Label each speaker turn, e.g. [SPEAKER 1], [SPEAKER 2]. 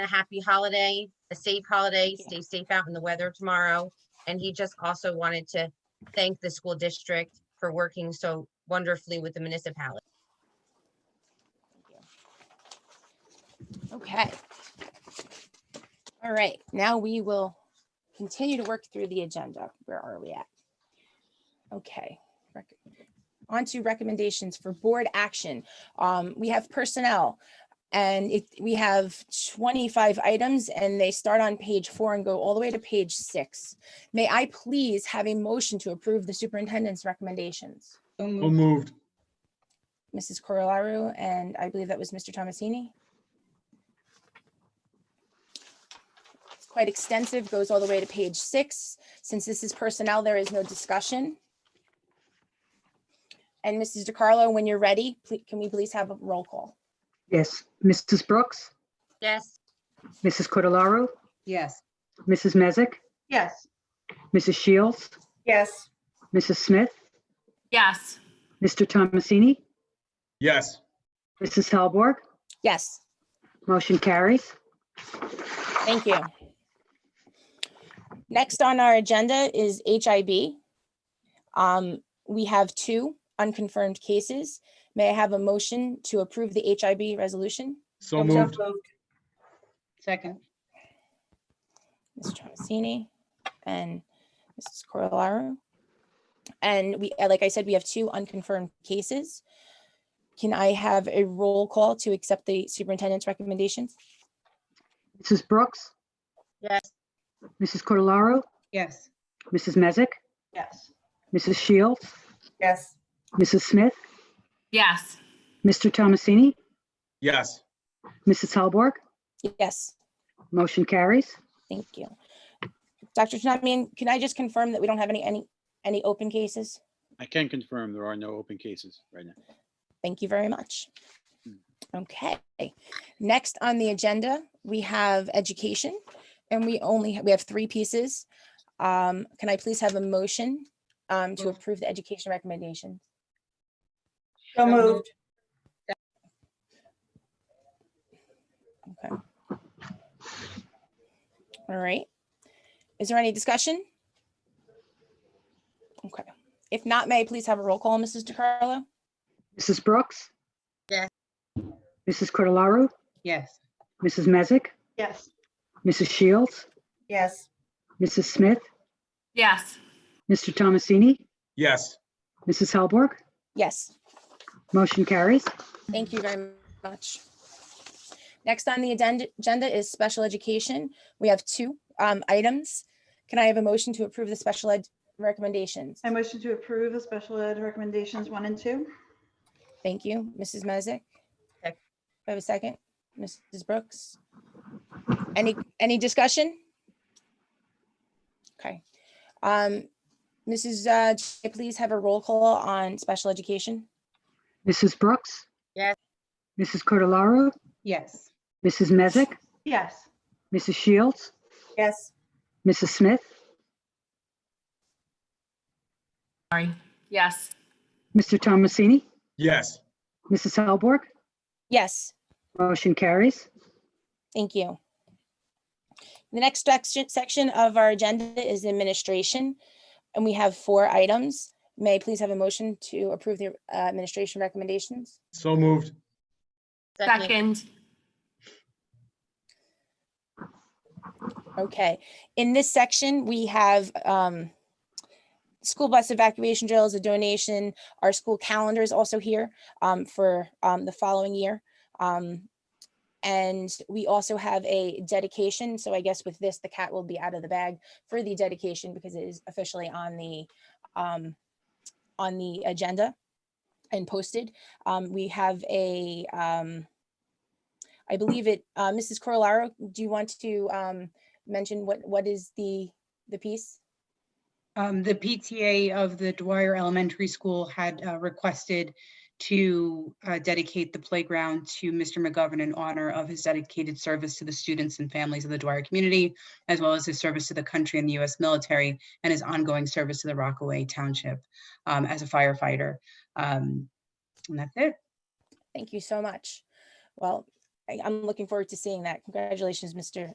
[SPEAKER 1] a happy holiday, a safe holiday,
[SPEAKER 2] you.
[SPEAKER 1] stay safe out in the weather tomorrow. And he just also wanted to thank the school district for working so wonderfully with the municipality.
[SPEAKER 2] Okay. All right, now we will continue to work through the agenda. Where are we at? Okay. rec- On to recommendations for board action. Um, we have personnel. And it, we have twenty-five items and they start on page four and go all the way to page six. May I please have a motion to approve the superintendent's recommendations?
[SPEAKER 3] So
[SPEAKER 4] So
[SPEAKER 3] moved.
[SPEAKER 4] moved.
[SPEAKER 2] Mrs. Corollaru, and I believe that was Mr. Thomasini. It's quite extensive, goes all the way to page six. Since this is personnel, there is no discussion. And Mrs. DeCarlo, when you're ready, ple- can we please have a roll call?
[SPEAKER 5] Yes, Mrs. Brooks,
[SPEAKER 1] Yes,
[SPEAKER 5] Mrs. Cordalaru,
[SPEAKER 3] Yes.
[SPEAKER 5] Mrs. Mezak,
[SPEAKER 3] Yes.
[SPEAKER 5] Mrs. Shields,
[SPEAKER 3] Yes.
[SPEAKER 5] Mrs. Smith,
[SPEAKER 6] Yes.
[SPEAKER 5] Mr. Thomasini,
[SPEAKER 4] Yes.
[SPEAKER 5] Mrs. Halborg.
[SPEAKER 2] Yes.
[SPEAKER 5] Motion carries.
[SPEAKER 2] Thank you. Next on our agenda is HIB. Um, We have two unconfirmed cases. May I have a motion to approve the HIB resolution?
[SPEAKER 4] So moved.
[SPEAKER 3] Second.
[SPEAKER 2] Mr. Thomasini and Mrs. Corollaro. And we, uh, like I said, we have two unconfirmed cases. Can I have a roll call to accept the superintendent's recommendations?
[SPEAKER 5] Mrs. Brooks,
[SPEAKER 1] yes,
[SPEAKER 5] Mrs. Cordalaru,
[SPEAKER 3] Yes.
[SPEAKER 5] Mrs. Mezak,
[SPEAKER 3] Yes.
[SPEAKER 5] Mrs. Shields,
[SPEAKER 3] Yes.
[SPEAKER 5] Mrs. Smith,
[SPEAKER 6] Yes.
[SPEAKER 5] Mr. Thomasini,
[SPEAKER 4] Yes.
[SPEAKER 5] Mrs. Halborg.
[SPEAKER 2] Yes,
[SPEAKER 5] Motion carries.
[SPEAKER 2] thank you. Dr. Tanamian, can I just confirm that we don't have any, any, any open cases?
[SPEAKER 7] I can confirm there are no open cases right now.
[SPEAKER 2] Thank you very much. Okay, next on the agenda, we have education and we only, we have three pieces. Um, Can I please have a motion um, to
[SPEAKER 1] Moved.
[SPEAKER 2] approve the education recommendations?
[SPEAKER 3] So moved.
[SPEAKER 2] Okay. All right. Is there any discussion? Okay, if not, may I please have a roll call, Mrs. DeCarlo?
[SPEAKER 5] Mrs. Brooks.
[SPEAKER 1] Yes.
[SPEAKER 5] Mrs. Cordalaru,
[SPEAKER 3] Yes.
[SPEAKER 5] Mrs. Mezak,
[SPEAKER 3] Yes.
[SPEAKER 5] Mrs. Shields,
[SPEAKER 3] Yes.
[SPEAKER 5] Mrs. Smith,
[SPEAKER 6] Yes.
[SPEAKER 5] Mr. Thomasini,
[SPEAKER 4] Yes.
[SPEAKER 5] Mrs. Halborg.
[SPEAKER 2] Yes.
[SPEAKER 5] Motion carries.
[SPEAKER 2] Thank you very much. Next on the addend- agenda is special education. We have two um, items. Can I have a motion to approve the special ed recommendations?
[SPEAKER 8] I motion to approve the special ed recommendations one and two.
[SPEAKER 2] Thank you, Mrs. Mezak. Do
[SPEAKER 1] Sec-
[SPEAKER 2] I have a second? Mrs. Brooks? Any, any discussion? Okay. Um, Mrs. uh, J- Please have a roll call on special education.
[SPEAKER 5] Mrs. Brooks?
[SPEAKER 1] Yes.
[SPEAKER 5] Mrs. Cordalaru?
[SPEAKER 3] Yes.
[SPEAKER 5] Mrs. Mezak?
[SPEAKER 8] Yes.
[SPEAKER 5] Mrs. Shields?
[SPEAKER 3] Yes.
[SPEAKER 5] Mrs. Smith?
[SPEAKER 6] Sorry. Yes.
[SPEAKER 5] Mr. Thomasini?
[SPEAKER 4] Yes.
[SPEAKER 5] Mrs. Halborg?
[SPEAKER 2] Yes.
[SPEAKER 5] Motion carries.
[SPEAKER 2] Thank you. The next section, section of our agenda is administration, and we have four items. May I please have a motion to approve the uh, administration recommendations?
[SPEAKER 4] So moved.
[SPEAKER 1] second,
[SPEAKER 6] Second.
[SPEAKER 2] Okay, in this section, we have um, school bus evacuation drills, a donation, our school calendar is also here um, for um, the following year. Um, And we also have a dedication, so I guess with this, the cat will be out of the bag for the dedication because it is officially on the um, on the agenda and posted. Um, We have a um, I believe it, uh, Mrs. Corolaro, do you want to um, mention what, what is the, the piece?
[SPEAKER 3] Um, the PTA of the Dwyer Elementary School had uh, requested to uh, dedicate the playground to Mr. McGovern in honor of his dedicated service to the students and families of the Dwyer community, as well as his service to the country and the US military and his ongoing service to the Rockaway Township um, as a firefighter. Um, And that's it.
[SPEAKER 2] Thank you so much. Well, I- I'm looking forward to seeing that. Congratulations, Mr.